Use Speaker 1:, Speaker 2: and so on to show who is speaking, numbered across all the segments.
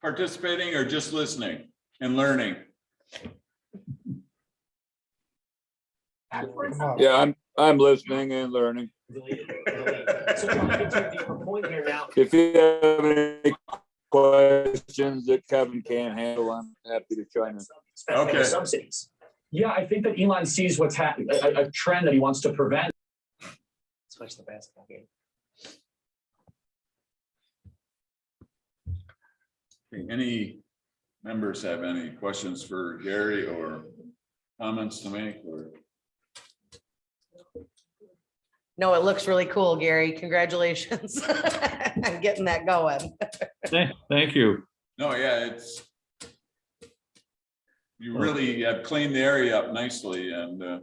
Speaker 1: participating or just listening and learning?
Speaker 2: Yeah, I'm, I'm listening and learning.
Speaker 3: So John, to your point here now,
Speaker 2: If you have any questions that Kevin can't handle, I'm happy to chime in.
Speaker 3: especially
Speaker 1: Okay.
Speaker 3: the subsidies. Yeah, I think that Elon sees what's happening, a, a trend that he wants to prevent. Switch the basketball game.
Speaker 1: Any members have any questions for Gary or comments to make or?
Speaker 4: No, it looks really cool, Gary. Congratulations on getting that going.
Speaker 5: Thank thank you.
Speaker 1: No, yeah, it's. You really have cleaned the area up nicely and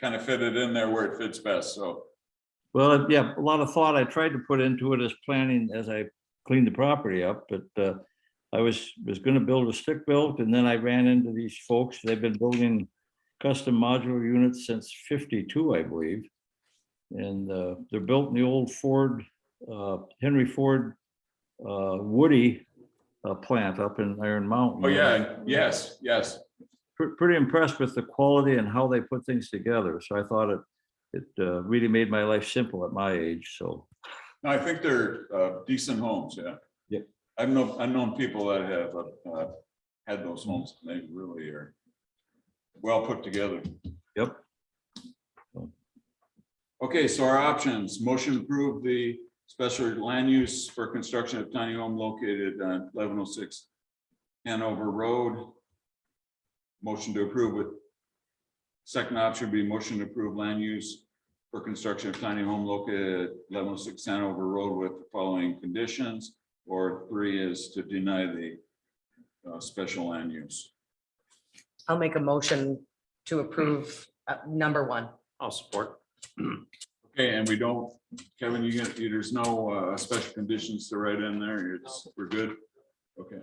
Speaker 1: kind of fit it in there where it fits best, so.
Speaker 5: Well, yeah, a lot of thought I tried to put into it as planning as I cleaned the property up, but uh, I was, was gonna build a stick built and then I ran into these folks. They've been building custom modular units since fifty-two, I believe. And uh, they're built in the old Ford, uh, Henry Ford uh, Woody uh, plant up in Iron Mountain.
Speaker 1: Oh, yeah, yes, yes.
Speaker 5: pre- pretty impressed with the quality and how they put things together. So I thought it, it uh, really made my life simple at my age. So
Speaker 1: No, I think they're uh, decent homes, yeah.
Speaker 5: Yeah.
Speaker 1: I've known, I've known people that have uh, had those homes, and they really are well put together.
Speaker 5: Yep.
Speaker 1: Okay, so our options, motion to approve the special land use for construction of tiny home located on eleven oh six Hanover Road. Motion to approve with second option would be motion to approve land use for construction of tiny home located eleven oh six Hanover Road with the following conditions. Or three is to deny the uh, special land use.
Speaker 4: I'll make a motion to approve uh, number one.
Speaker 6: I'll support.
Speaker 1: Okay, and we don't, Kevin, you get, you- there's no uh, special conditions to write in there. You're just, we're good. Okay,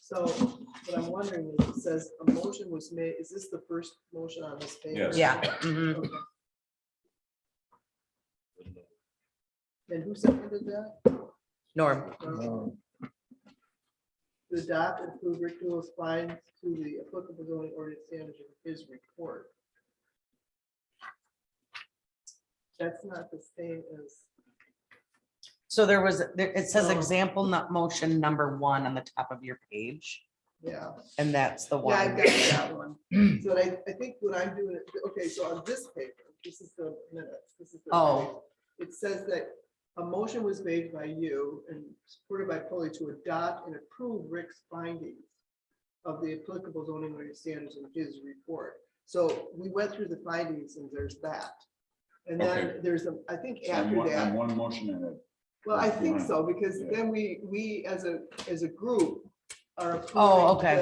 Speaker 7: So what I'm wondering is, it says a motion was made, is this the first motion on this page?
Speaker 1: Yes.
Speaker 4: Yeah. mhm.
Speaker 7: Okay. And who seconded that?
Speaker 4: Norm,
Speaker 7: Um, To adopt and approve Rick Newell's fines to the applicable zoning ordinance standards in his report. That's not the same as,
Speaker 4: so there was, there- it says
Speaker 7: Oh.
Speaker 4: example, not motion number one on the top of your page,
Speaker 7: yeah.
Speaker 4: and that's the
Speaker 7: Yeah, I've
Speaker 4: one.
Speaker 7: got that one. So I, I think what I'm doing, is- okay, so on this paper, this is the minutes, this is the.
Speaker 4: Oh.
Speaker 7: It says that a motion was made by you and supported by Polly to adopt and approve Rick's findings of the applicable zoning ordinance standards in his report. So we went through the findings and there's that. And then
Speaker 1: Okay.
Speaker 7: there's, a I think
Speaker 1: so I'm
Speaker 7: after
Speaker 1: one,
Speaker 7: that.
Speaker 1: I'm one motion ahead.
Speaker 7: Well, I think
Speaker 1: Right.
Speaker 7: so, because
Speaker 1: Yeah.
Speaker 7: then we, we as a, as a group are.
Speaker 4: Oh,
Speaker 7: approving
Speaker 4: okay.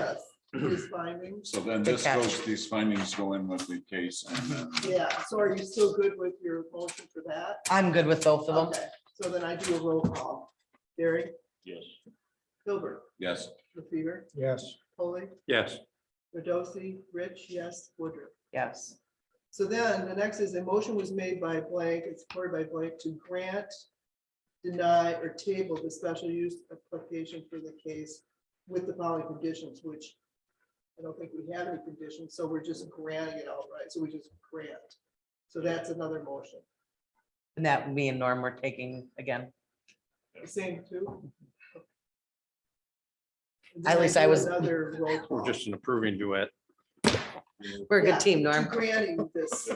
Speaker 7: this, These findings,
Speaker 1: So then
Speaker 4: Good
Speaker 1: this
Speaker 4: catch.
Speaker 1: goes, these findings go in with the case and then.
Speaker 7: yeah, so are you still good with your motion for that?
Speaker 4: I'm good with both of them.
Speaker 7: Okay, so then I do a roll call, Gary,
Speaker 6: Yes.
Speaker 7: Hilbert,
Speaker 1: Yes,
Speaker 7: LaFever,
Speaker 3: Yes.
Speaker 7: Polley,
Speaker 6: Yes.
Speaker 7: Redosi, Rich, yes, Woodruff.
Speaker 4: Yes.
Speaker 7: So then the next is a motion was made by blank, it's supported by blank to grant, deny or table the special use application for the case with the following conditions, which I don't think we have any conditions, so we're just granting it outright. So we just grant. So that's another motion.
Speaker 4: And that me and Norm were taking again.
Speaker 7: Same two.
Speaker 4: At least I was-
Speaker 7: Another roll
Speaker 6: We're
Speaker 7: call.
Speaker 6: just an approving duet.
Speaker 4: We're a
Speaker 7: Yeah,
Speaker 4: good team,
Speaker 7: to
Speaker 4: Norm.
Speaker 7: Granting this.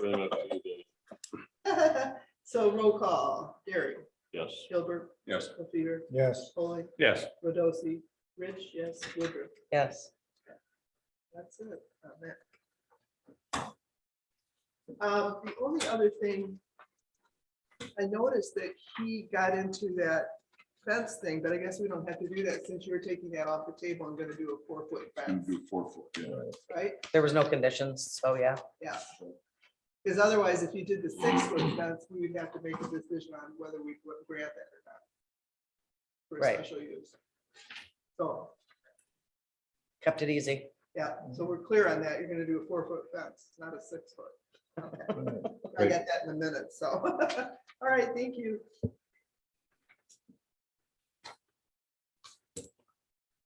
Speaker 7: So roll call, Gary,
Speaker 6: Yes.
Speaker 7: Gilbert,
Speaker 1: yes.
Speaker 7: Lefever,
Speaker 3: Yes.
Speaker 7: Foley,
Speaker 6: Yes.
Speaker 7: Rodosi, Rich, yes, Woodruff,
Speaker 4: Yes.
Speaker 7: that's it. on that. Um, the only other thing, I noticed that he got into that fence thing, but I guess we don't have to do that since you're taking that off the table and gonna do a four foot
Speaker 1: And
Speaker 7: fence,
Speaker 1: do four foot, yeah.
Speaker 7: right?
Speaker 4: There was no conditions, so yeah.
Speaker 7: Yeah. Because otherwise, if you did the six foot fence, we would have to make a decision on whether we would grant that or not. For
Speaker 4: Right.
Speaker 7: special use. So,
Speaker 4: Kept it easy.
Speaker 7: yeah, so we're clear on that. You're gonna do a four foot fence, not a six foot. Okay. I got that in a minute, so. All right, thank you.